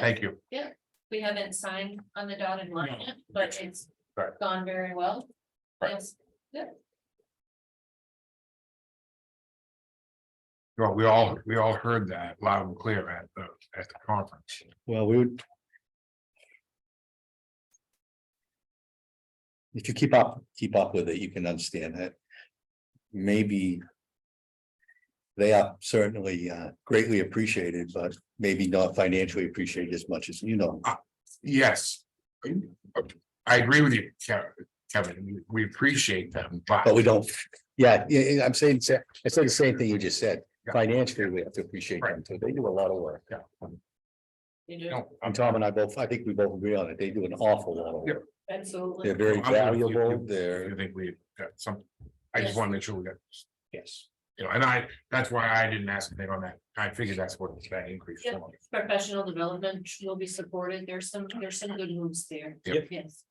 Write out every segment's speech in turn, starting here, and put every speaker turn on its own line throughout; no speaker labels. Thank you.
We haven't signed on the dotted line,
No.
yet, but it's
Right.
gone very well.
Right.
Yes.
Well, we all, we all heard that loud and clear at the, at the conference.
Well, we would. If you keep up, keep up with it, you can understand that. Maybe. They are certainly uh, greatly appreciated, but maybe not financially appreciated as much as you know.
Yes. I agree with you, Ke- Kevin. We appreciate them, but.
But we don't, yeah, yeah, yeah, I'm saying, I said the same thing you just said.
Yeah.
Financially, we have to appreciate them too. They do a lot of work.
Yeah.
You
you
do,
know,
And Tom and I both, I think we both agree on it. They do an awful lot of
Yeah.
work.
absolutely.
They're very
I'm with you.
valuable. They're,
I think we got some, I just
Yes.
want to make sure we got,
yes.
you know, and I, that's why I didn't ask anything on that. I figured that's what that increase.
Yeah.
was.
Professional development will be supported. There's some, there's some good moves there.
Yep.
Yes.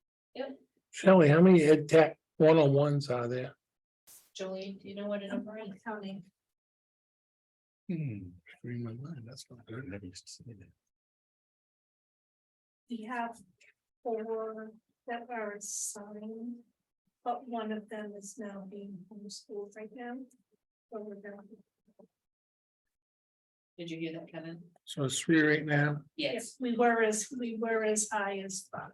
Shelley, how many ed tech one-on-ones are there?
Jolene, do you know what a number is? Counting.
Hmm, free my mind, that's not good. I never used to say that.
We have four that are assigned, but one of them is now being homeschooled right now. So we're gonna,
Did you hear that, Kevin?
So it's three right now.
yes,
Yes,
we were as, we were as high as five,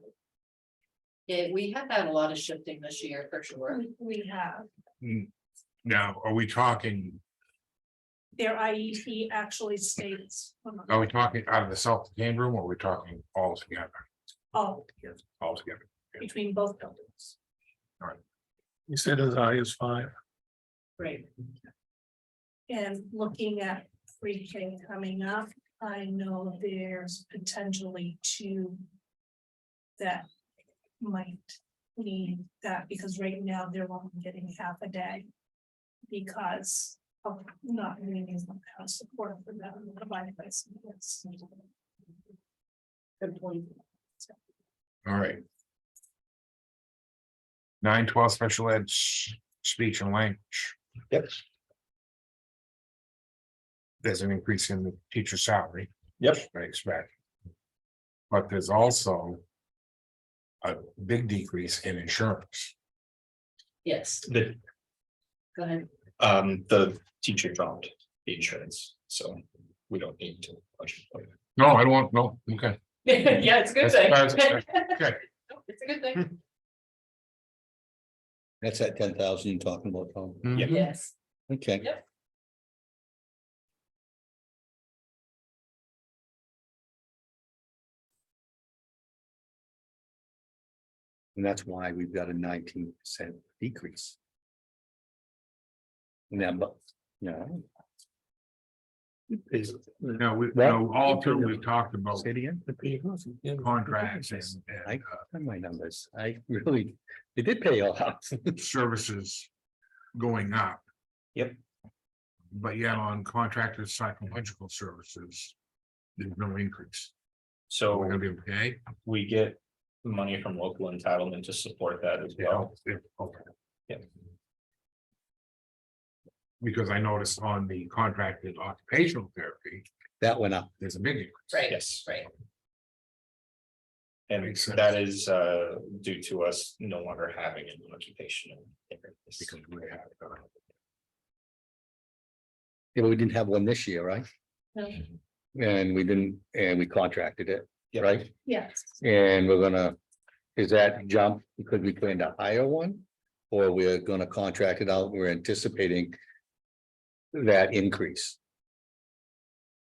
yeah, we have had a lot of shifting this year for sure.
we, we have.
Mm. Now, are we talking,
Their IEP actually states um,
are we talking out of the self-contained room or are we talking all together?
all
All together.
between both buildings.
You said as high as five.
Right.
And looking at pre-K coming up, I know there's potentially two that might need that, because right now they're only getting half a day because of not needing the kind of support for them provided by some kids.
Good point.
All right. Nine twelve special ed s- speech and language.
Yep.
There's an increase in the teacher salary.
Yep.
I expect. But there's also. A big decrease in insurance.
Yes,
The,
go ahead.
um, the teacher dropped the insurance, so we don't need to. budget for it.
No, I don't want, no, okay,
Yeah, it's a good thing.
That's- okay.
It's a good thing.
That's that ten thousand you're talking about, Tom.
Mm-hmm.
Yeah.
Yes.
Okay.
Yep.
And that's why we've got a nineteen percent decrease. Now, but, yeah.
Is-
no, we, no, all through, we've talked about
Say it again.
contracts and, and uh,
Find My numbers, I really, it did pay off.
services. Going up.
Yep.
But yet on contracted psychological services. There's no increase. So we're
So
gonna be okay.
we get money from local entitlement to support that as well.
Yeah, okay.
Yeah.
Because I noticed on the contracted occupational therapy,
That went up.
there's a big increase.
Right.
Yes.
Right.
And
Makes sense.
that is, uh, due to us no longer having an occupation.
Because we have, uh,
Yeah, but we didn't have one this year, right?
No.
And we didn't, and we contracted it,
Yep.
right?
Yes,
And we're gonna, is that jump because we plan to hire one? Or we're gonna contract it out, we're anticipating that increase.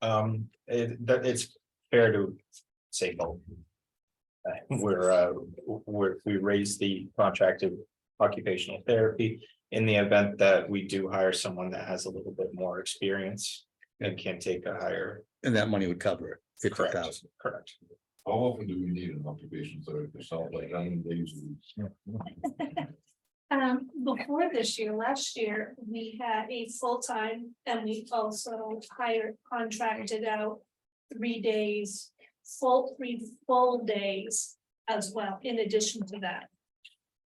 Um, it, that, it's fair to say both. Uh, We're, uh, we're, we raise the contracted occupational therapy in the event that we do hire someone that has a little bit more experience. And can take a higher.
And that money would cover it, fifty
Correct,
thousand.
Correct.
How often do we need an occupation therapist? It sounds like nine days. a week.
um, before this year, last year, we had a full-time and we also hired, contracted out three days, full, three full days as well, in addition to that.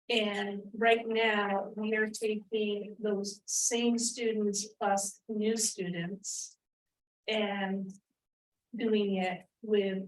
And right now, we are taking those same students plus new students. And doing it with